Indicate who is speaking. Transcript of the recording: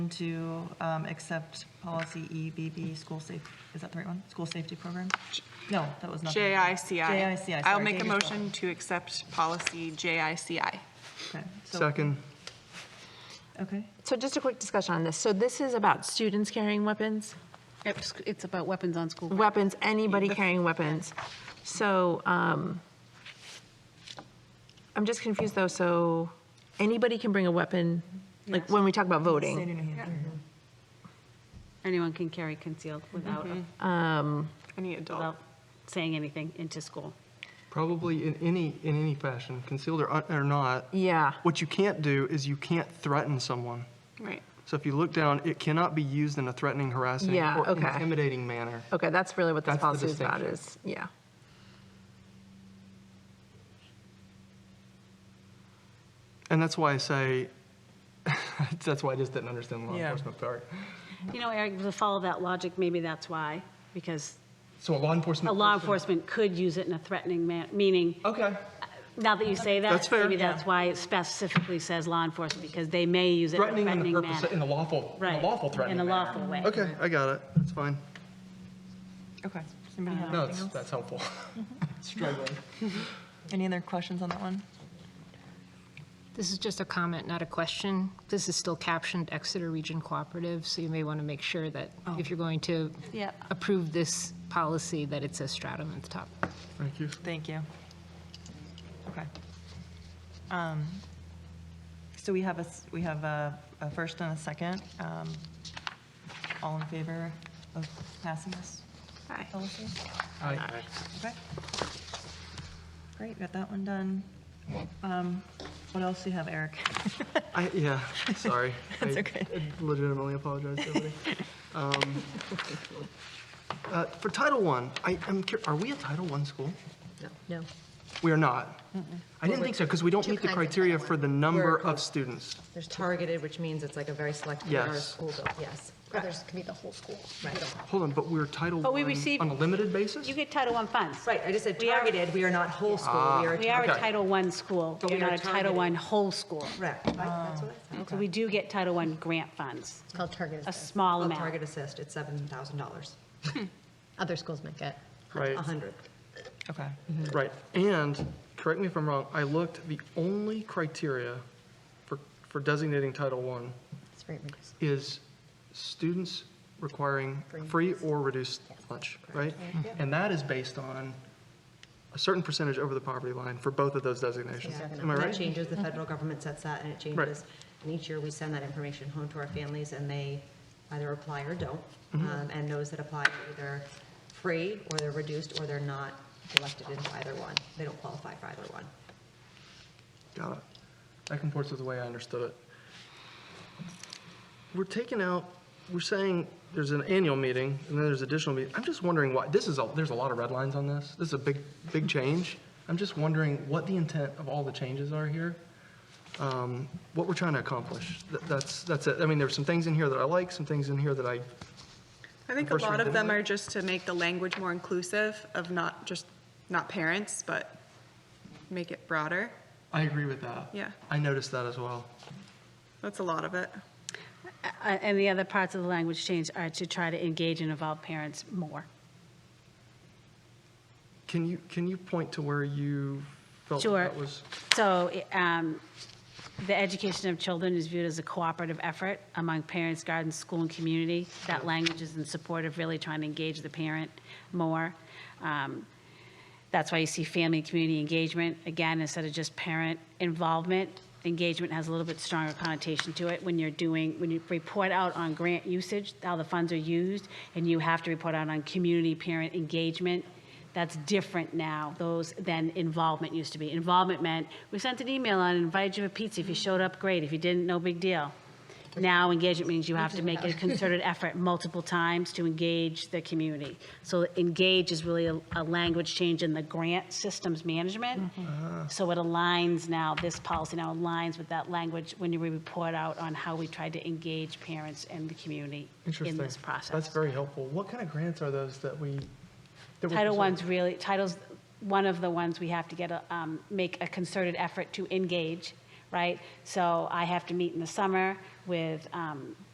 Speaker 1: to um, accept policy EBB, school safe, is that the right one? School safety program? No, that was not.
Speaker 2: JICI.
Speaker 1: JICI.
Speaker 2: I'll
Speaker 1: sorry,
Speaker 2: make a
Speaker 1: Dave is
Speaker 2: motion to accept policy JICI.
Speaker 1: right. Okay, so-
Speaker 3: Second.
Speaker 1: Okay,
Speaker 4: So just a quick discussion on this. So this is about students carrying weapons,
Speaker 5: It's, it's about weapons on school.
Speaker 4: weapons, anybody carrying weapons. So um, I'm just confused though, so anybody can bring a weapon, like when we talk about voting?
Speaker 1: Mm-hmm.
Speaker 5: Anyone can carry concealed without,
Speaker 2: Any adult.
Speaker 5: without saying anything into school.
Speaker 3: Probably in any, in any fashion, concealed or, or not.
Speaker 4: Yeah.
Speaker 3: What you can't do is you can't threaten someone.
Speaker 2: Right.
Speaker 3: So if you look down, it cannot be used in a threatening, harassing,
Speaker 4: Yeah,
Speaker 3: or
Speaker 4: okay.
Speaker 3: intimidating manner.
Speaker 4: Okay, that's really what this
Speaker 3: That's the
Speaker 4: policy is about,
Speaker 3: distinction.
Speaker 4: is, yeah.
Speaker 3: And that's why I say, that's why I just didn't understand the law
Speaker 1: Yeah.
Speaker 3: enforcement part.
Speaker 5: You know, Eric, to follow that logic, maybe that's why, because
Speaker 3: So a law
Speaker 5: a
Speaker 3: enforcement.
Speaker 5: law
Speaker 3: person-
Speaker 5: enforcement could use it in a threatening man, meaning,
Speaker 3: Okay,
Speaker 5: now that you say that.
Speaker 3: That's fair.
Speaker 5: Maybe that's why it specifically says law enforcement, because they may use it in a
Speaker 3: threatening in
Speaker 5: threatening
Speaker 3: the purpose, in
Speaker 5: manner.
Speaker 3: the lawful, in the
Speaker 5: Right,
Speaker 3: lawful threatening
Speaker 5: In a
Speaker 3: manner.
Speaker 5: lawful way.
Speaker 3: Okay, I got it, that's fine.
Speaker 1: okay. Uh, Does anybody have
Speaker 3: No,
Speaker 1: anything
Speaker 3: it's-
Speaker 1: else?
Speaker 3: that's helpful. Struggling.
Speaker 1: Any other questions on that one?
Speaker 6: This is just a comment, not a question. This is still captioned Exeter Region Cooperative, so you may want to make sure that if you're going to
Speaker 1: Yep.
Speaker 6: approve this policy, that it says Stratum at the top.
Speaker 3: Thank you.
Speaker 1: Thank you. Okay. Um, So we have a, s- we have a a first and a second. Um, All in favor of passing this policy?
Speaker 3: Aye.
Speaker 1: Okay. Great, got that one done. Um, What else do you have, Eric?
Speaker 3: I, yeah, sorry.
Speaker 1: That's
Speaker 3: I-
Speaker 1: okay.
Speaker 3: I legitimately apologize to everybody. Um, uh, For Title I, I am, cur- are we a Title I school?
Speaker 4: No.
Speaker 3: We are not. I didn't think so, because we don't meet the criteria for the number of students.
Speaker 7: There's targeted, which means it's like a very select,
Speaker 3: Yes.
Speaker 7: our school, though, yes.
Speaker 8: Others can be the whole school.
Speaker 3: Hold on, but we're Title
Speaker 5: But we
Speaker 3: I
Speaker 5: receive-
Speaker 3: on a limited basis?
Speaker 5: You get Title I funds.
Speaker 7: Right, I just said
Speaker 5: We are-
Speaker 7: targeted, we are not whole school, we are.
Speaker 5: We are a
Speaker 3: Okay.
Speaker 5: Title I school.
Speaker 7: But
Speaker 5: We're
Speaker 7: we are
Speaker 5: not a Title I
Speaker 7: targeted.
Speaker 5: whole school.
Speaker 7: Correct, Right, that's what I said.
Speaker 5: So we do get Title I grant funds,
Speaker 8: It's called targeted.
Speaker 5: a
Speaker 8: assessment.
Speaker 5: small
Speaker 7: Well,
Speaker 5: amount.
Speaker 7: Target assist, it's $7,000,
Speaker 8: Other schools might get.
Speaker 3: Right,
Speaker 7: 100.
Speaker 1: Okay,
Speaker 3: right. And, correct me if I'm wrong, I looked, the only criteria for, for designating Title I
Speaker 8: It's very reduced.
Speaker 3: is students requiring
Speaker 8: Free.
Speaker 3: free or reduced lunch, right? And that is based on a certain percentage over the poverty line for both of those designations.
Speaker 7: Yeah,
Speaker 3: Am I
Speaker 7: and That
Speaker 3: right?
Speaker 7: changes, the federal government sets that, and it changes. And each year, we send that information home to our families, and they either apply or don't.
Speaker 3: Mm-hmm.
Speaker 7: Um, And those that apply are either free, or they're reduced, or they're not elected into either one. They don't qualify for either one.
Speaker 3: Got it. That comports with the way I understood it. We're taking out, we're saying there's an annual meeting and then there's additional meeting. I'm just wondering why, this is, a there's a lot of red lines on this. This is a big, big change. I'm just wondering what the intent of all the changes are here. um, What we're trying to accomplish. Th- That's, that's it. I mean, there's some things in here that I like, some things in here that I,
Speaker 2: I think a
Speaker 3: First
Speaker 2: lot of
Speaker 3: reading.
Speaker 2: them are just to make the language more inclusive of not just, not parents, but make it broader.
Speaker 3: I agree with that.
Speaker 2: Yeah.
Speaker 3: I noticed that as well.
Speaker 2: That's a lot of it.
Speaker 5: Uh, And the other parts of the language change are to try to engage and involve parents more.
Speaker 3: Can you, can you point to where you felt that
Speaker 5: Sure.
Speaker 3: that was?
Speaker 5: So um, the education of children is viewed as a cooperative effort among parents, guardians, school, and community. That language is in support of really trying to engage the parent more. Um, That's why you see family and community engagement, again, instead of just parent involvement. Engagement has a little bit stronger connotation to it when you're doing, when you report out on grant usage, how the funds are used, and you have to report out on community parent engagement. That's different now, those, than involvement used to be. Involvement meant, we sent an email out and invited you to pizza. If you showed up, great. If you didn't, no big deal. Now engagement means you have to make a concerted effort multiple times to engage the community. So engage is really a, a language change in the grant systems management.
Speaker 3: Uh-huh.
Speaker 5: So it aligns now, this policy now aligns with that language when you report out on how we tried to engage parents and the community in
Speaker 3: Interesting.
Speaker 5: this process.
Speaker 3: That's very helpful. What kind of grants are those that we? that we're
Speaker 5: Title
Speaker 3: presenting?
Speaker 5: I's really, Title's one of the ones we have to get, a um, make a concerted effort to engage, right? So I have to meet in the summer with um,